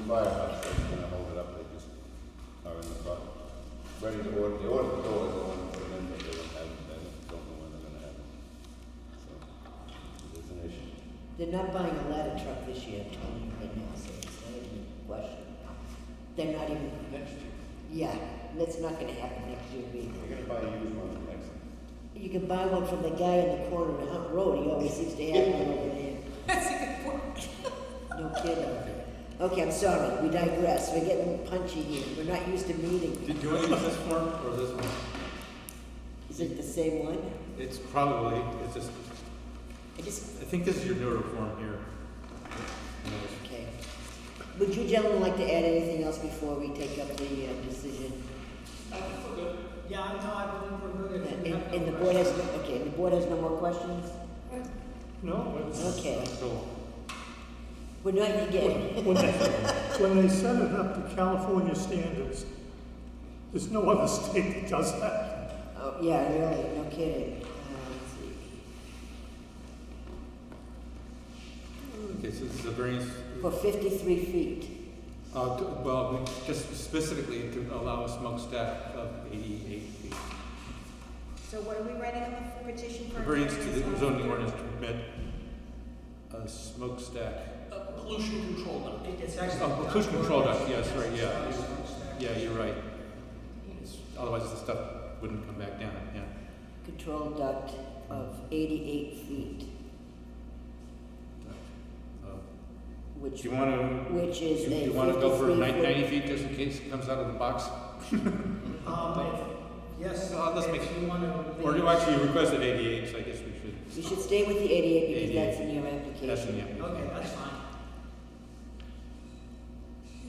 firehouse, that's gonna hold it up, they just are in the front. Ready to order, they ordered the doors, they want to put it in, but they don't have, it. they don't know when they're gonna have it. So, it's an issue. They're not buying a ladder truck this year, Tony, right now, so it's not even a question. They're not even, Next year, yeah, that's not gonna happen next year either. you're gonna buy a used one next year. You can buy one from the guy in the corner of Hunt Road, he always seems to have one over there. That's a good point. No kidding. Okay, I'm sorry, we digress, we're getting punchy here, we're not used to meeting. Did you want to use this form or this one? Is it the same one? It's probably, it's just, I just, I think this is your newer form here. okay. Would you gentlemen like to add anything else before we take up the uh, decision? Yeah, I know, I believe we're good. if And, we have no and the board has, questions. no okay, the board has no more questions? No, it's, Okay, So, we're not gonna get, when they, when they set it up to California standards, there's no other state that does that. oh, yeah, really, no kidding. Uh, let's see. okay, so this is a variance, For fifty-three feet, uh, to- well, we- just specifically to allow a smokestack of eighty-eight feet. So what are we writing on the petition A for? variance to the zoning ordinance to permit a smokestack. Uh, pollution control now. It- It's actually. Um, Oh, pollution control duct, yes, right, yeah. Yeah, you're right. It's- Otherwise, the stuff wouldn't come back down, yeah. control duct of eighty-eight feet, Uh, Do which, you want to which is a You, fifty-three you wanna go for foot- nine- ninety feet just in case it comes out of the box? Um, if- yes. Uh, let's make- If you want to. Or do you actually request at eighty-eight, so I guess we should, You should stay with the eighty-eight because 88. that's in your application. that's in the application. Okay, that's fine.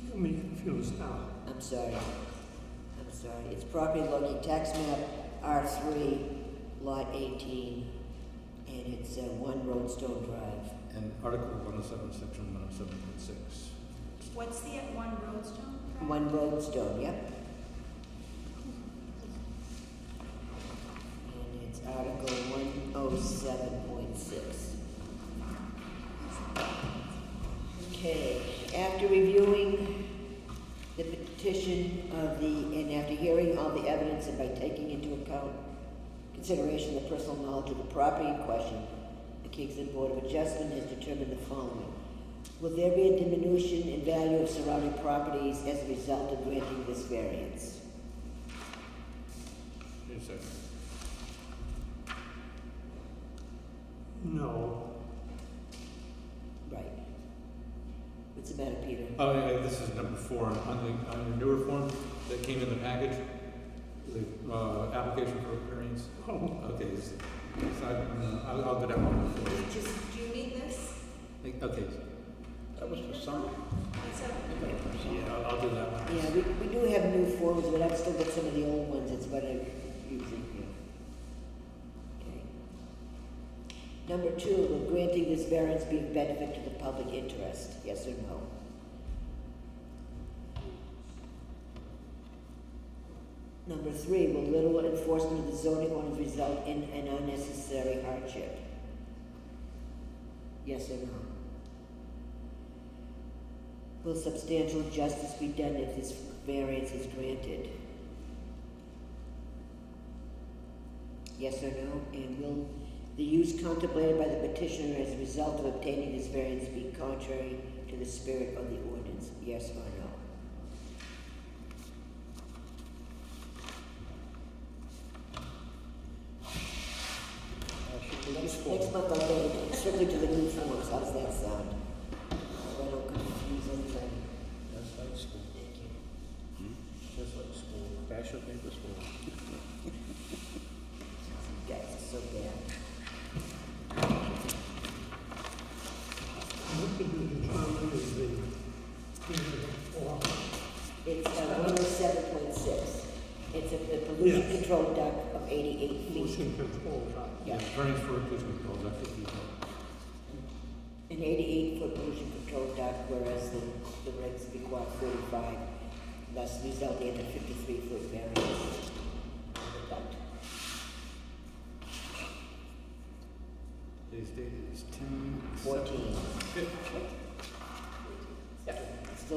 You got me confused now. I'm sorry. I'm sorry. It's property located tax map R three, lot eighteen, and it's uh, one Roadstone Drive. And Article one oh seven, section one oh seven point six. What's the at one roadstone? Drive? One Roadstone, yep. And it's Article one oh seven point six. Okay, after reviewing the petition of the, and after hearing all the evidence and by taking into account consideration of the personal knowledge of the property in question, the Kingston Board of Adjustment has determined the following. Will there be a diminution in value of surrounding properties as a result of granting this variance? Yes, sir. No, Right. What's the matter, Peter? Oh, yeah, this is number four, on the, on the newer form that came in the package, the, uh, application for variance. oh, Okay, it's, it's, not- I'll, I'll go down one more. Do you Just, do you need this? Like, Okay, That was for summer. It's a- yeah, I'll, I'll do that one. Yeah, we, we do have new forms, but I've still got some of the old ones, it's what I usually do. Okay. Number two, will granting this variance be of benefit to the public interest, yes or no? Number three, will little enforcement of the zoning ordinance result in an unnecessary hardship? Yes or no? Will substantial justice be done if this variance is granted? Yes or no? And will the use contemplated by the petitioner as a result of obtaining this variance be contrary to the spirit of the ordinance? Yes or no? Next next month I'll go strictly to the new forms, how's that sound? So I don't confuse anything. That's like school. Thank you. That's like school. Fashion paper school. You guys are so bad. what did you determine is the, the law? It's one oh seven point six. It's a the pollution Yes. control duct of eighty-eight feet. pollution control? right? Yeah, Variance for inclusion control, that's what we call an eighty-eight foot pollution control duct, whereas the, the regs require forty-five, thus resulting in a fifty-three foot variance of the duct. it. They stated it's ten. Fourteen. Fif-